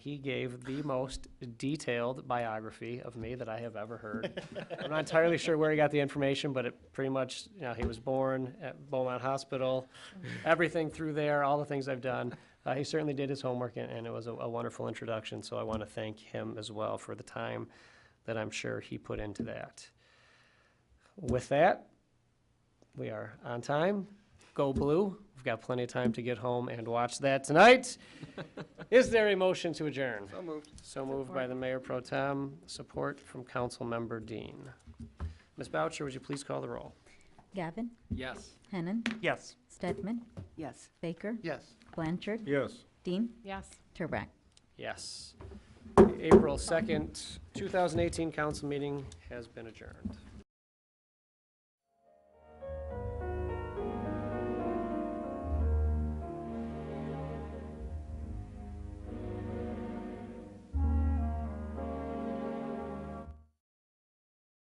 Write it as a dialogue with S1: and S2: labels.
S1: He gave the most detailed biography of me that I have ever heard. I'm not entirely sure where he got the information, but it pretty much, you know, he was born at Beaumont Hospital, everything through there, all the things I've done. Uh, he certainly did his homework, and, and it was a, a wonderful introduction. So I want to thank him as well for the time that I'm sure he put into that. With that, we are on time. Go blue. We've got plenty of time to get home and watch that tonight. Is there a motion to adjourn? So moved. So moved by the mayor pro tem, support from council member Dean. Ms. Boucher, would you please call the roll?
S2: Gavin,
S3: Yes.
S2: Hennan,
S1: Yes.
S2: Stedman,
S4: Yes.
S2: Baker,
S3: Yes.
S2: Blanchard,
S5: Yes.
S2: Dean,
S4: Yes.
S2: Turbrack.
S1: Yes. April 2nd, 2018 council meeting has been adjourned.